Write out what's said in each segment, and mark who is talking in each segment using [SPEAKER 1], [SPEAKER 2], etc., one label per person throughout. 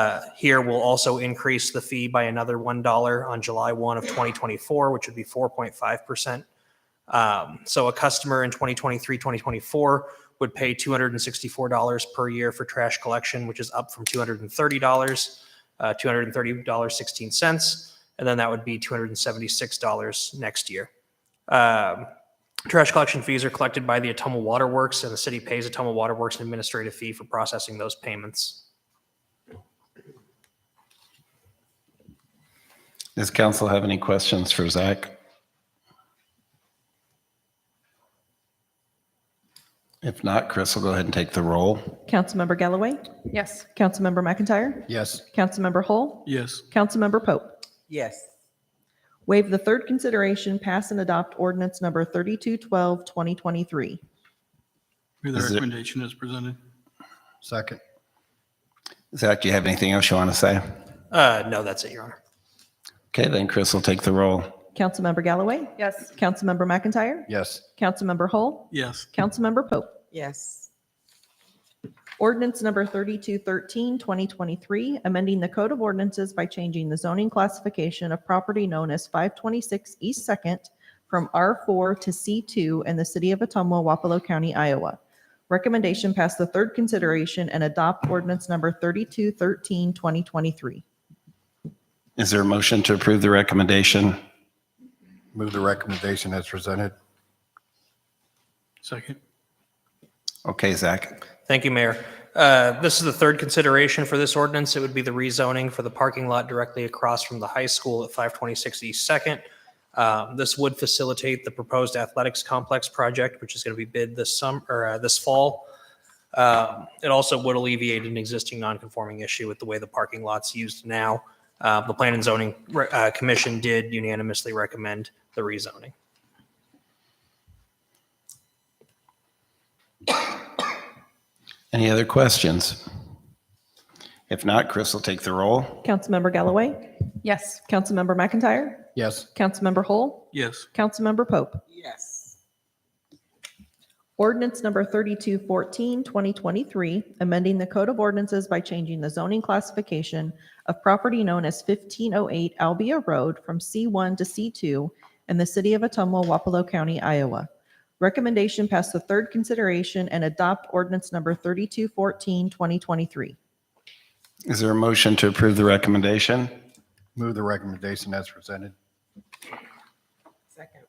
[SPEAKER 1] Uh, Here, we'll also increase the fee by another $1 on July 1 of 2024, which would be 4.5%. Um, So a customer in 2023, 2024 would pay $264 per year for trash collection, which is up from $230, uh, $230.16. And then that would be $276 next year. Um, Trash collection fees are collected by the Atomo Water Works, and the city pays Atomo Water Works an administrative fee for processing those payments.
[SPEAKER 2] Does council have any questions for Zach? If not, Chris will go ahead and take the roll.
[SPEAKER 3] Councilmember Galloway?
[SPEAKER 4] Yes.
[SPEAKER 3] Councilmember McIntyre?
[SPEAKER 2] Yes.
[SPEAKER 3] Councilmember Hull?
[SPEAKER 5] Yes.
[SPEAKER 3] Councilmember Pope?
[SPEAKER 6] yes,
[SPEAKER 3] Waive the third consideration, pass and adopt ordinance number 3212, 2023.
[SPEAKER 5] Move
[SPEAKER 2] Is
[SPEAKER 5] the
[SPEAKER 2] there-
[SPEAKER 5] recommendation as presented.
[SPEAKER 7] Second.
[SPEAKER 2] Zach, do you have anything else you want to say?
[SPEAKER 1] Uh, no, that's it, Your Honor.
[SPEAKER 2] Okay, then Chris will take the roll.
[SPEAKER 3] Councilmember Galloway?
[SPEAKER 4] Yes.
[SPEAKER 3] Councilmember McIntyre?
[SPEAKER 7] Yes.
[SPEAKER 3] Councilmember Hull?
[SPEAKER 5] Yes.
[SPEAKER 3] Councilmember Pope?
[SPEAKER 6] yes,
[SPEAKER 3] Ordinance number 3213, 2023, amending the Code of Ordinances by changing the zoning classification of property known as 526 East Second from R4 to C2 in the city of Atumwa, Wapello County, Iowa. Recommendation pass the third consideration and adopt ordinance number 3213, 2023.
[SPEAKER 2] Is there a motion to approve the recommendation?
[SPEAKER 7] Move the recommendation as presented.
[SPEAKER 5] Second.
[SPEAKER 2] Okay, Zach.
[SPEAKER 1] Thank you, Mayor. Uh, This is the third consideration for this ordinance. It would be the rezoning for the parking lot directly across from the high school at 526 East Second. Um, This would facilitate the proposed athletics complex project, which is going to be bid this summer, or uh, this fall. Um, It also would alleviate an existing non-conforming issue with the way the parking lot's used now. Uh, The Plan and Zoning uh, Commission did unanimously recommend the rezoning.
[SPEAKER 2] Any other questions? If not, Chris will take the roll.
[SPEAKER 3] Councilmember Galloway?
[SPEAKER 4] Yes.
[SPEAKER 3] Councilmember McIntyre?
[SPEAKER 7] Yes.
[SPEAKER 3] Councilmember Hull?
[SPEAKER 5] Yes.
[SPEAKER 3] Councilmember Pope?
[SPEAKER 6] yes,
[SPEAKER 3] Ordinance number 3214, 2023, amending the Code of Ordinances by changing the zoning classification of property known as 1508 Albia Road from C1 to C2 in the city of Atumwa, Wapello County, Iowa. Recommendation pass the third consideration and adopt ordinance number 3214, 2023.
[SPEAKER 2] Is there a motion to approve the recommendation?
[SPEAKER 7] Move the recommendation as presented.
[SPEAKER 6] second,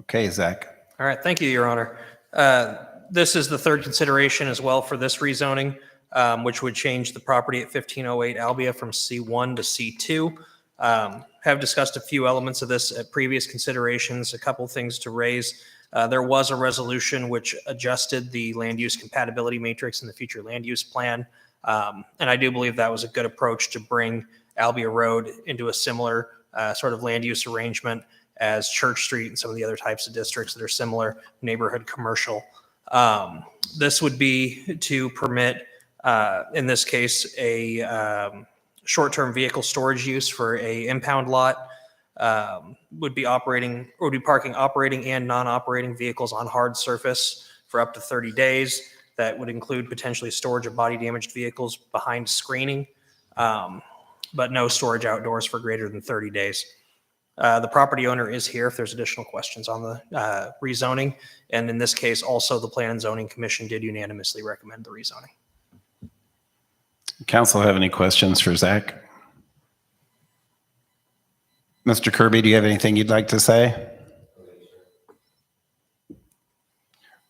[SPEAKER 2] Okay, Zach.
[SPEAKER 1] All right, thank you, Your Honor. Uh, This is the third consideration as well for this rezoning, um, which would change the property at 1508 Albia from C1 to C2. Um, Have discussed a few elements of this at previous considerations, a couple things to raise. Uh, There was a resolution which adjusted the land use compatibility matrix in the future land use plan. Um, And I do believe that was a good approach to bring Albia Road into a similar uh, sort of land use arrangement as Church Street and some of the other types of districts that are similar, neighborhood commercial. Um, this would be to permit, uh, in this case, a um, short-term vehicle storage use for a impound lot. Um, would be operating, would be parking operating and non-operating vehicles on hard surface for up to 30 days. That would include potentially storage of body damaged vehicles behind screening, um, but no storage outdoors for greater than 30 days. Uh, The property owner is here if there's additional questions on the uh, rezoning. And in this case, also the Plan and Zoning Commission did unanimously recommend the rezoning.
[SPEAKER 2] Council have any questions for Zach? Mr. Kirby, do you have anything you'd like to say?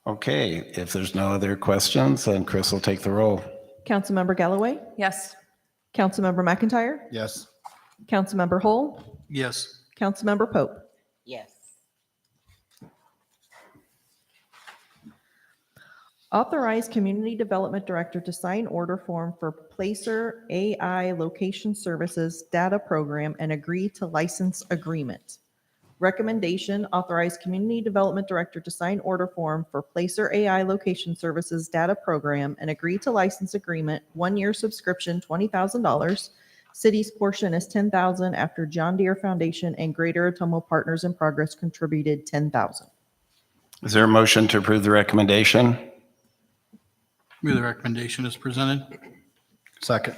[SPEAKER 2] Okay, if there's no other questions, then Chris will take the roll.
[SPEAKER 3] Councilmember Galloway?
[SPEAKER 4] Yes.
[SPEAKER 3] Councilmember McIntyre?
[SPEAKER 7] Yes.
[SPEAKER 3] Councilmember Hull?
[SPEAKER 5] Yes.
[SPEAKER 3] Councilmember Pope?
[SPEAKER 6] yes,
[SPEAKER 3] Authorize Community Development Director to sign order form for Placer AI Location Services Data Program and agree to license agreement. Recommendation, authorize Community Development Director to sign order form for Placer AI Location Services Data Program and agree to license agreement, one-year subscription, $20,000. City's portion is 10,000 after John Deere Foundation and Greater Atomo Partners in Progress contributed 10,000.
[SPEAKER 2] Is there a motion to approve the recommendation?
[SPEAKER 5] Move the recommendation as presented.
[SPEAKER 7] Second.